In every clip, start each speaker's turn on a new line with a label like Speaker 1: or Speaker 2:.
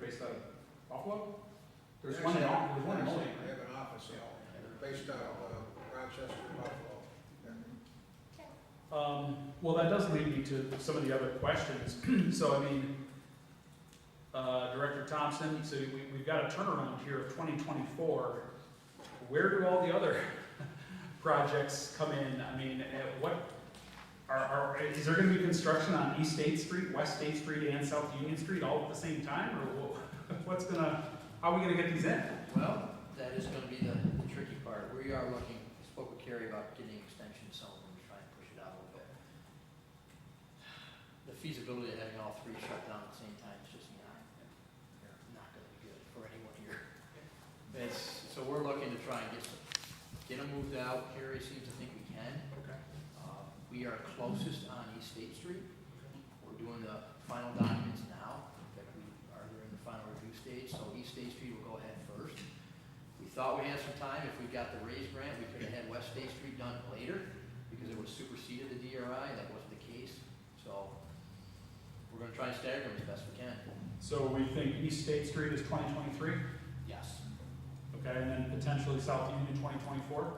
Speaker 1: based out of Buffalo? There's one
Speaker 2: Actually,
Speaker 1: in, Al- there's one in
Speaker 2: actually,
Speaker 1: Olean.
Speaker 2: They have an office in Olean. They're based out of uh, Rochester, Buffalo.
Speaker 1: Um, well, that does lead me to some of the other questions. So, I mean, uh, Director Thompson, so we, we've got a turnaround here of twenty twenty-four. Where do all the other projects come in? I mean, at what, are, are, is there gonna be construction on East State Street, West State Street, and South Union Street all at the same time? Or wha- what's gonna, how are we gonna get these in?
Speaker 3: Well, that is gonna be the the tricky part. We are looking, I spoke with Carrie about getting extensions, some of them, to try and push it out a little bit. The feasibility of having all three shut down at the same time is just not, not gonna be good for anyone here. It's, so we're looking to try and get, some- get them moved out. Carrie seems to think we can.
Speaker 1: Okay.
Speaker 3: Um, We are closest on East State Street. We're doing the final documents now, that we are during the final review stage, so East State Street will go ahead first. We thought we had some time, if we got the raise grant, we could have had West State Street done later, because it was superseded the DRI, that wasn't the case. So we're gonna try and stagger them as best we can.
Speaker 1: So we think East State Street is twenty twenty-three?
Speaker 3: Yes.
Speaker 1: Okay, and then potentially South Union 2024,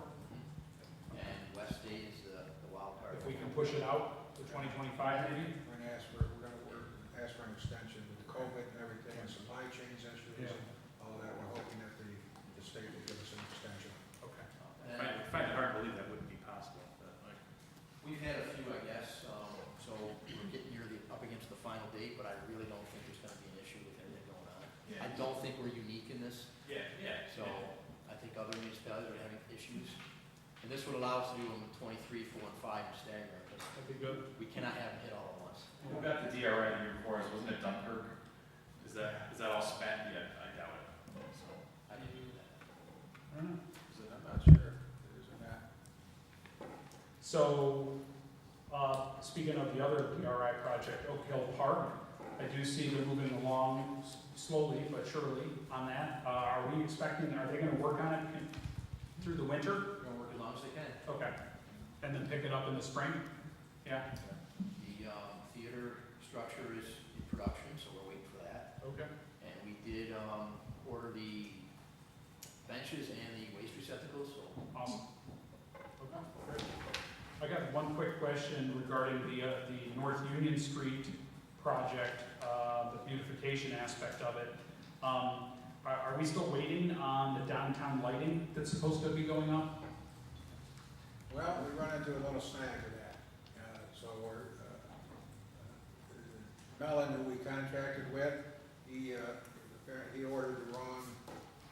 Speaker 3: And West State is the the wild card.
Speaker 1: if we can push it out to 2025 maybe?
Speaker 2: We're gonna ask for, we're gonna, work ask for an extension with COVID and everything, and supply chains issues, and all that. We're hoping that the, the state will give us an extension.
Speaker 1: Okay.
Speaker 3: Uh,
Speaker 4: I
Speaker 3: and-
Speaker 4: find it hard to believe that wouldn't be possible, but.
Speaker 3: We've had a few, I guess, um, so we're getting nearly up against the final date, but I really don't think there's gonna be an issue with everything going on. I don't think we're unique in this,
Speaker 4: Yeah, yeah.
Speaker 3: so I think other municipalities are having issues. And this would allow us to do them twenty-three, four, and five and stagger, because
Speaker 1: That'd be good.
Speaker 3: we cannot have them hit all at once.
Speaker 4: Who got the DRI the year before us? Wasn't it Dunkirk? Is that, is that all spent yet? I doubt it. So,
Speaker 3: I didn't do that.
Speaker 1: I don't know.
Speaker 2: Is it- I'm not sure if it is or not.
Speaker 1: So, uh, speaking of the other PRI project, Oak Hill Park, I do see they're moving along s- slowly but surely on that. Uh, Are we expecting, are they going to work on it in- through the winter?
Speaker 3: We're gonna work as long as they can.
Speaker 1: Okay. And then pick it up in the spring? Yeah,
Speaker 3: The, um, theater structure is in production, so we're waiting for that.
Speaker 1: okay.
Speaker 3: And we did, um, order the benches and the waste receptacles, so
Speaker 1: Awesome. Okay, great. I got one quick question regarding the, uh, the North Union Street project, uh, the beautification aspect of it. Um, Are, are we still waiting on the downtown lighting that's supposed to be going up?
Speaker 2: Well, we run into a little snag with that. Uh, So we're, uh, uh, Mellon, who we contracted with, he, uh, apparently he ordered the wrong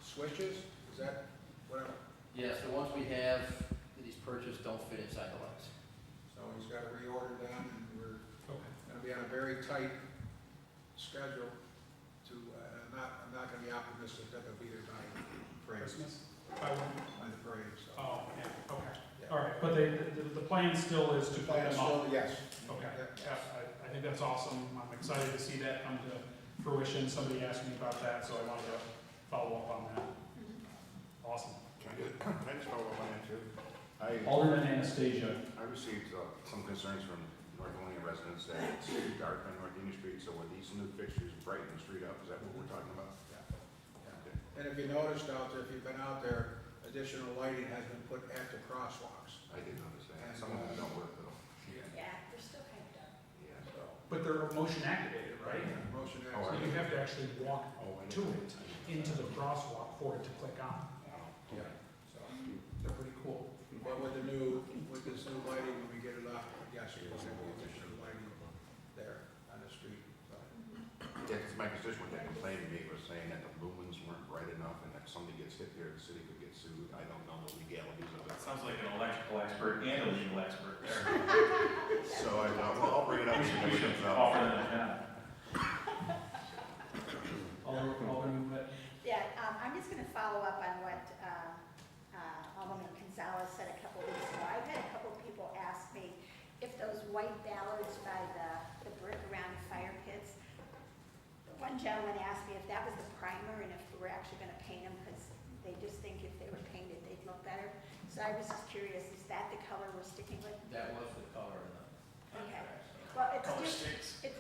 Speaker 2: switches. Is that what, I'm-
Speaker 3: Yes, the ones we have that he's purchased don't fit inside the lights.
Speaker 2: so he's got to reorder them and we're
Speaker 1: Okay.
Speaker 2: going to be on a very tight schedule to, uh, I'm not, I'm not going to be optimistic that they'll be there by the parade,
Speaker 1: Christmas? By when?
Speaker 2: by the parade, so.
Speaker 1: Oh, yeah, okay.
Speaker 2: yeah.
Speaker 1: All right, but they, the, the plan still is to put
Speaker 2: Plan
Speaker 1: them up?
Speaker 2: still- Yes.
Speaker 1: Okay,
Speaker 2: Yeah.
Speaker 1: yeah, I, I think that's awesome. I'm excited to see that come to fruition. Somebody asked me about that, so I wanted to follow up on that. Awesome.
Speaker 5: Can I just, can I just follow up on that too? I,
Speaker 1: Alderman Anastasia.
Speaker 5: I received uh, some concerns from North Carolina residents that it's too dark on North Union Street, so with these new fixtures brightening the street up, is that what we're talking about?
Speaker 2: Yeah. And if you noticed out there, if you've been out there, additional lighting has been put at the crosswalks.
Speaker 5: I did notice that, some of them don't work though.
Speaker 6: Yeah, they're still hyped up.
Speaker 5: Yeah.
Speaker 2: So,
Speaker 1: But they're motion activated, right?
Speaker 2: motion to
Speaker 1: So
Speaker 5: Oh, I-
Speaker 2: exit.
Speaker 1: you have to actually walk
Speaker 5: Oh, I
Speaker 1: to
Speaker 5: know.
Speaker 1: it, into the crosswalk for it to click on.
Speaker 2: Yeah. So,
Speaker 1: They're pretty cool.
Speaker 2: But with the new, with this new lighting, when we get it up, yes, we'll have the additional lighting there on the street. So,
Speaker 5: Yeah, 'cause my constituent that complained to me was saying that the lumens weren't bright enough and that somebody gets hit there, the city could get sued. I don't know the legalities of
Speaker 4: It
Speaker 5: it.
Speaker 4: sounds like an electrical expert and a legal expert there.
Speaker 5: So I thought, well, I'll bring it up.
Speaker 4: We should,
Speaker 5: when it
Speaker 4: we should
Speaker 5: comes up.
Speaker 4: offer them a job.
Speaker 1: Alderman, Alderman Witt.
Speaker 6: Yeah, um, I'm just gonna follow up on what, um, uh, Alderman Gonzalez said a couple weeks ago. I've had a couple people ask me if those white ballards by the, the brick around the fire pits, one gentleman asked me if that was the primer and if we're actually gonna paint them, because they just think if they were painted, they'd look better. So I was just curious, is that the color we're sticking with?
Speaker 3: That was the color in the
Speaker 6: Okay.
Speaker 3: contract. so.
Speaker 6: Well, it's just, it's